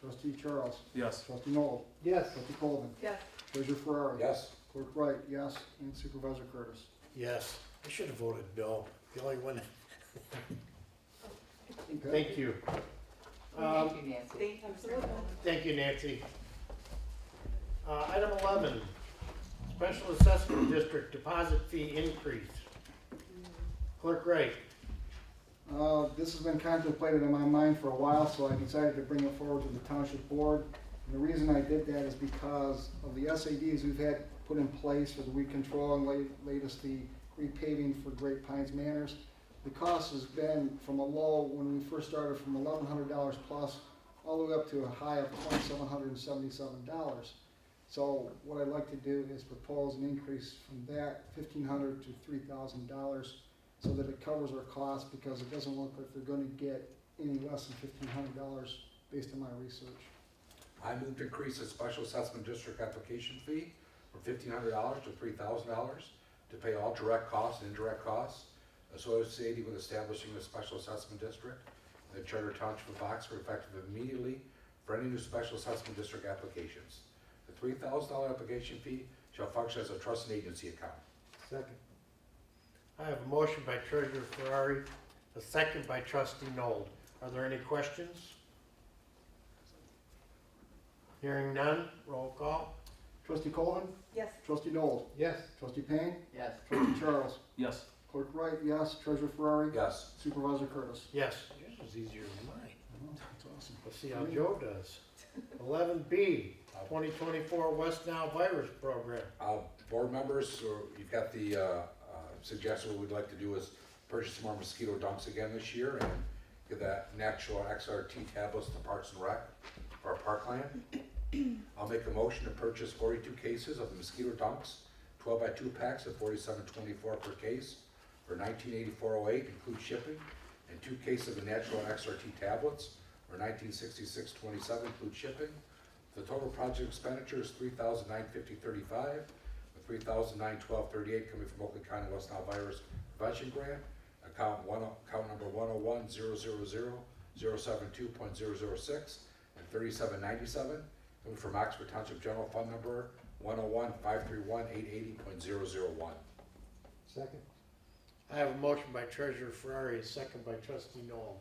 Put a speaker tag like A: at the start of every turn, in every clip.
A: Trustee Charles?
B: Yes.
A: Trustee Noel?
C: Yes.
A: Trustee Colvin?
D: Yes.
A: Treasurer Ferrari?
E: Yes.
A: Clerk Wright, yes, and Supervisor Curtis.
E: Yes. I should have voted Bill. The only one.
A: Okay.
C: Thank you. Um,
D: Thank you, Nancy. Absolutely.
C: Thank you, Nancy. Uh, Item 11, Special Assessment District Deposit Fee Increase. Clerk Wright.
A: Uh, This has been contemplated in my mind for a while, so I decided to bring it forward to the township board. And the reason I did that is because of the SADs we've had put in place for the weed control and la- latest the repaving for Great Pines Manors. The cost has been from a low, when we first started, from eleven hundred dollars plus, all the way up to a high of twenty-seven hundred and seventy-seven dollars. So what I'd like to do is propose an increase from that fifteen hundred to three thousand dollars so that it covers our costs, because it doesn't look like they're gonna get any less than fifteen hundred dollars based on my research.
F: I move to increase the special assessment district application fee from fifteen hundred dollars to three thousand dollars to pay all direct costs and indirect costs associated with establishing the special assessment district in the Charter Township of Oxford effective immediately for any new special assessment district applications. The three thousand dollar application fee shall function as a trust and agency account.
C: Second. I have a motion by Treasurer Ferrari, a second by Trustee Nold. Are there any questions? Hearing none, roll call.
A: Trustee Colvin?
D: Yes.
A: Trustee Noel?
C: Yes.
A: Trustee Payne?
D: Yes.
A: Trustee Charles?
B: Yes.
A: Clerk Wright, yes. Treasurer Ferrari?
F: Yes.
A: Supervisor Curtis?
C: Yes. Yours was easier than mine.
A: Uh-huh. That's awesome.
C: Let's see how Joe does. Eleven B, twenty twenty-four West Nile Virus Program.
F: Uh, board members, or you've got the, uh, uh, suggestion, what we'd like to do is purchase more mosquito dunks again this year and get that natural XRT tablets to Parks and Rec for our parkland. I'll make a motion to purchase forty-two cases of mosquito dunks, twelve by two packs of forty-seven twenty-four per case for nineteen eighty-four oh eight, include shipping, and two cases of the natural XRT tablets for nineteen sixty-six twenty-seven, include shipping. The total project expenditure is three thousand nine fifty thirty-five, with three thousand nine twelve thirty-eight coming from Oakland County West Nile Virus Prevention Grant, account one, account number one oh one zero zero zero zero seven two point zero zero six, and thirty-seven ninety-seven coming from Oxford Township General Fund number one oh one five three one eight eighty point zero zero one.
E: Second.
C: I have a motion by Treasurer Ferrari, a second by Trustee Noel.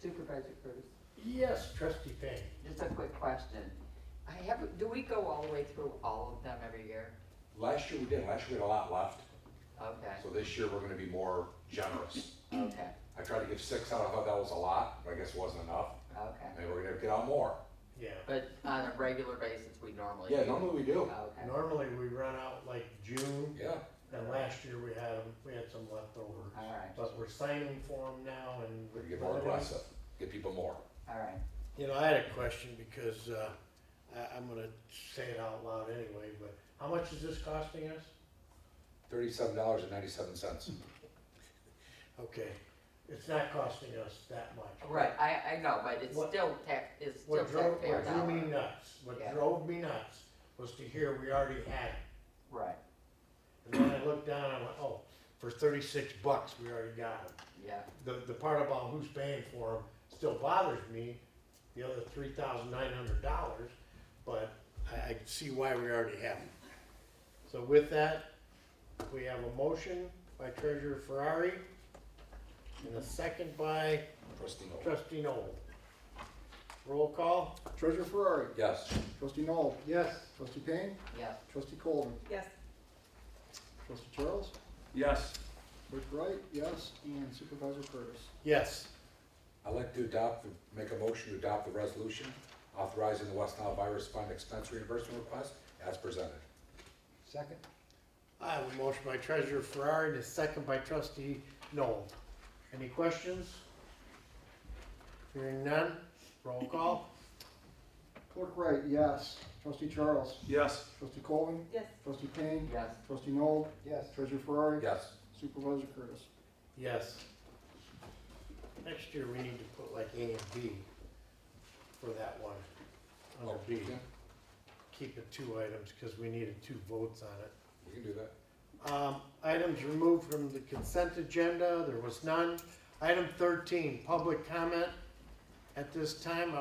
D: Supervisor Curtis,
C: Yes, Trustee Payne.
D: just a quick question. I have, do we go all the way through all of them every year?
F: Last year we did, last year we had a lot left,
D: Okay,
F: so this year we're gonna be more generous.
D: okay,
F: I tried to give six out, I thought that was a lot, but I guess it wasn't enough,
D: okay.
F: and we're gonna get out more.
C: Yeah.
D: But on a regular basis, we normally.
F: Yeah,
D: do.
F: normally we do,
D: Okay,
C: Normally, we run out like June,
F: yeah.
C: and last year we had, 'em- we had some leftovers.
D: all right,
C: But we're signing for them now and.
F: We can get more aggressive, get people more.
D: all right.
C: You know, I had a question because, uh, I, I'm gonna say it out loud anyway, but how much is this costing us?
F: Thirty-seven dollars and ninety-seven cents.
C: Okay, it's not costing us that much.
D: Right, I, I know, but it's
C: What-
D: still tax, it's still
C: What drove,
D: taxpayer
C: what drove
D: dollar.
C: me nuts, what
D: Yeah.
C: drove me nuts was to hear we already had it.
D: Right,
C: And then I looked down and I went, oh, for thirty-six bucks, we already got them.
D: yeah,
C: The, the part about who's paying for them still bothers me, the other three thousand nine hundred dollars, but I, I see why we already have them. So with that, we have a motion by Treasurer Ferrari and a second by
F: Trustee Noel.
C: Trustee Noel. Roll call?
A: Treasurer Ferrari?
F: Yes.
A: Trustee Noel?
C: Yes.
A: Trustee Payne?
D: yes.
A: Trustee Colvin?
D: Yes.
A: Trustee Charles?
B: Yes.
A: Clerk Wright, yes, and Supervisor Curtis.
C: Yes.
F: I'd like to adopt, the- make a motion to adopt the resolution authorizing the West Nile Virus Fund expense reimbursement request as presented.
E: Second.
C: I have a motion by Treasurer Ferrari and a second by Trustee Noel. Any questions? Hearing none, roll call.
A: Clerk Wright, yes. Trustee Charles?
B: Yes.
A: Trustee Colvin?
D: Yes.
A: Trustee Payne?
D: Yes.
A: Trustee Noel?
E: Yes.
A: Treasurer Ferrari?
F: Yes.
A: Supervisor Curtis?
C: Yes. Next year, we need to put like A and B for that one, under B.
F: Okay.
C: Keep it two items, because we needed two votes on it.
F: We can do that.
C: Um, items removed from the consent agenda, there was none. Item thirteen, public comment. At this time,